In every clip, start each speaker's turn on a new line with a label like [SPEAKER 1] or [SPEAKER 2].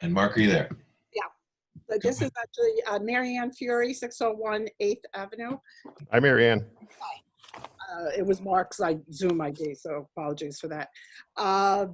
[SPEAKER 1] And Mark, are you there?
[SPEAKER 2] But This is actually uh, Mary Ann Fury, 601 8th Avenue.
[SPEAKER 3] Hi, Mary Ann.
[SPEAKER 2] Uh, It was Mark's like, Zoom ID, so apologies for that. Uh,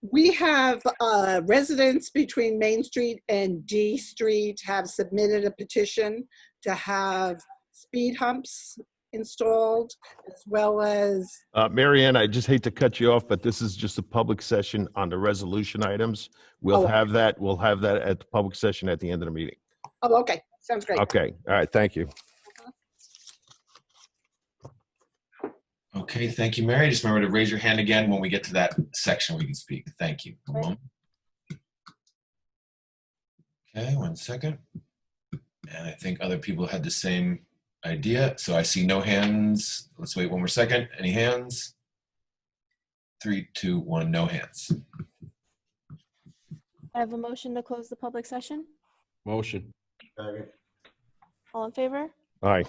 [SPEAKER 2] We have uh, residents between Main Street and D Street have submitted a petition to have speed humps installed as well as,
[SPEAKER 3] Uh, Mary Ann, I just hate to cut you off, but this is just a public session on the resolution items.
[SPEAKER 2] Oh.
[SPEAKER 3] We'll have that, we'll have that at the public session at the end of the meeting.
[SPEAKER 2] oh, okay, sounds great.
[SPEAKER 3] Okay, all right, thank you.
[SPEAKER 1] Okay, thank you, Mary. Just remember to raise your hand again when we get to that section we can speak. Thank you. One moment. Okay, one second. And I think other people had the same idea, so I see no hands. Let's wait one more second. Any hands? Three, two, one, no hands.
[SPEAKER 4] I have a motion to close the public session.
[SPEAKER 5] Motion.
[SPEAKER 4] All in favor?
[SPEAKER 3] All right,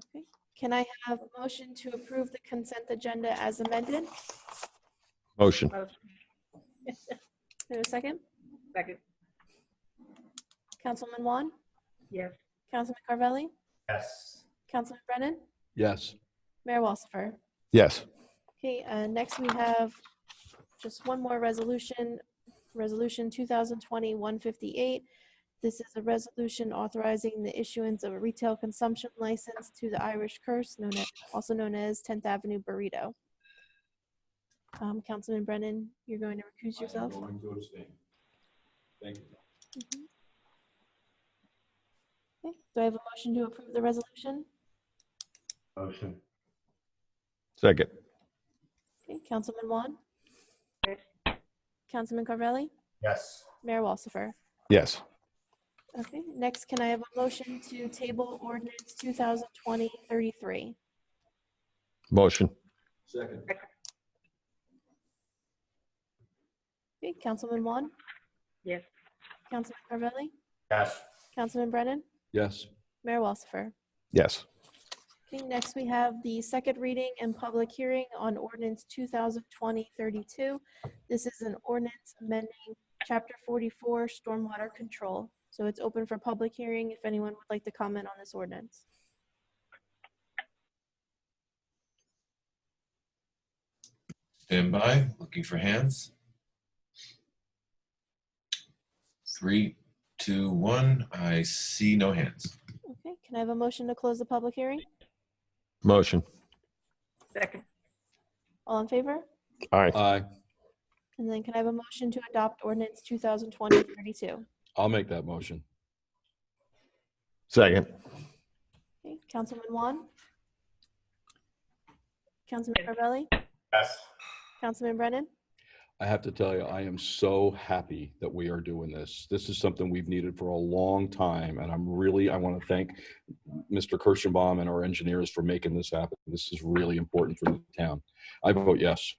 [SPEAKER 4] Okay. Can I have a motion to approve the consent agenda as amended?
[SPEAKER 3] motion.
[SPEAKER 2] Uh,
[SPEAKER 4] Is there a second?
[SPEAKER 2] Second.
[SPEAKER 4] Councilman Juan?
[SPEAKER 2] Yes.
[SPEAKER 4] Councilman Carvelli?
[SPEAKER 6] Yes.
[SPEAKER 4] Councilman Brennan?
[SPEAKER 5] Yes.
[SPEAKER 4] Mayor Walsifer?
[SPEAKER 3] Yes,
[SPEAKER 4] Okay, uh, next we have just one more resolution, Resolution 2020-158. This is a resolution authorizing the issuance of a retail consumption license to the Irish Curse, known as, also known as 10th Avenue Burrito. Um, Councilman Brennan, you're going to recuse yourself?
[SPEAKER 6] Thank you.
[SPEAKER 4] Mhm. Okay, Do I have a motion to approve the resolution?
[SPEAKER 6] Motion.
[SPEAKER 3] second.
[SPEAKER 4] Okay, Councilman Juan? Councilman Carvelli?
[SPEAKER 6] Yes.
[SPEAKER 4] Mayor Walsifer?
[SPEAKER 3] Yes,
[SPEAKER 4] Okay, next, can I have a motion to table ordinance 2020-33?
[SPEAKER 3] motion.
[SPEAKER 6] Second.
[SPEAKER 4] Okay, Councilman Juan?
[SPEAKER 2] Yes.
[SPEAKER 4] Councilman Carvelli?
[SPEAKER 6] Yes.
[SPEAKER 4] Councilman Brennan?
[SPEAKER 5] Yes.
[SPEAKER 4] Mayor Walsifer?
[SPEAKER 3] Yes,
[SPEAKER 4] Okay, next, we have the second reading and public hearing on ordinance 2020-32. This is an ordinance amending Chapter 44 Stormwater Control. So it's open for public hearing if anyone would like to comment on this ordinance.
[SPEAKER 1] Stand by, looking for hands. Three, two, one. I see no hands.
[SPEAKER 4] Okay, can I have a motion to close the public hearing?
[SPEAKER 3] motion.
[SPEAKER 4] All in favor?
[SPEAKER 3] All right,
[SPEAKER 5] Aye.
[SPEAKER 4] And then can I have a motion to adopt ordinance 2020-32?
[SPEAKER 5] I'll make that motion.
[SPEAKER 3] second.
[SPEAKER 4] Okay, Councilman Juan? Councilman Carvelli?
[SPEAKER 6] Yes.
[SPEAKER 4] Councilman Brennan?
[SPEAKER 5] I have to tell you, I am so happy that we are doing this. This is something we've needed for a long time, and I'm really, I want to thank Mr. Kirschenbaum and our engineers for making this happen. This is really important for the town. I vote yes.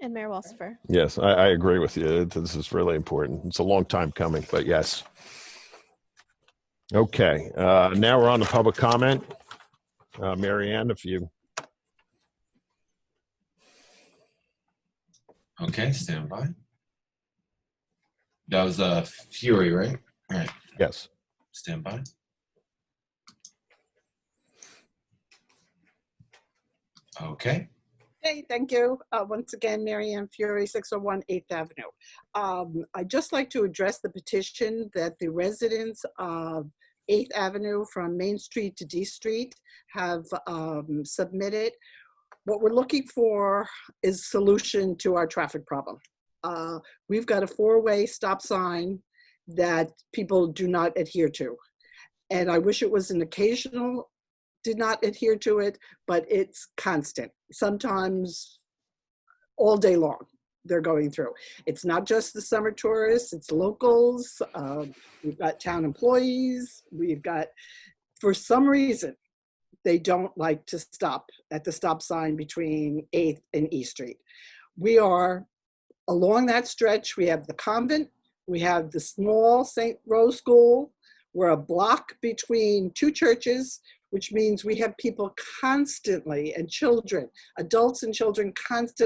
[SPEAKER 4] And Mayor Walsifer?
[SPEAKER 3] Yes, I, I agree with you. This is really important. It's a long time coming, but yes. Okay, uh, now we're on the public comment. Uh, Mary Ann, if you,
[SPEAKER 1] Okay, stand by. That was uh, Fury, right? All right,
[SPEAKER 3] yes.
[SPEAKER 1] stand by. Okay,
[SPEAKER 2] Okay, thank you. Uh, Once again, Mary Ann Fury, 601 8th Avenue. Um, I'd just like to address the petition that the residents of 8th Avenue from Main Street to D Street have um, submitted. What we're looking for is solution to our traffic problem. Uh, We've got a four-way stop sign that people do not adhere to. And I wish it was an occasional did not adhere to it, but it's constant, sometimes all day long. They're going through. It's not just the summer tourists, it's locals. Um, we've got town employees. We've got, for some reason, they don't like to stop at the stop sign between 8th and E Street. We are along that stretch. We have the convent, we have the small St. Rose School. We're a block between two churches, which means we have people constantly and children, adults and children constantly.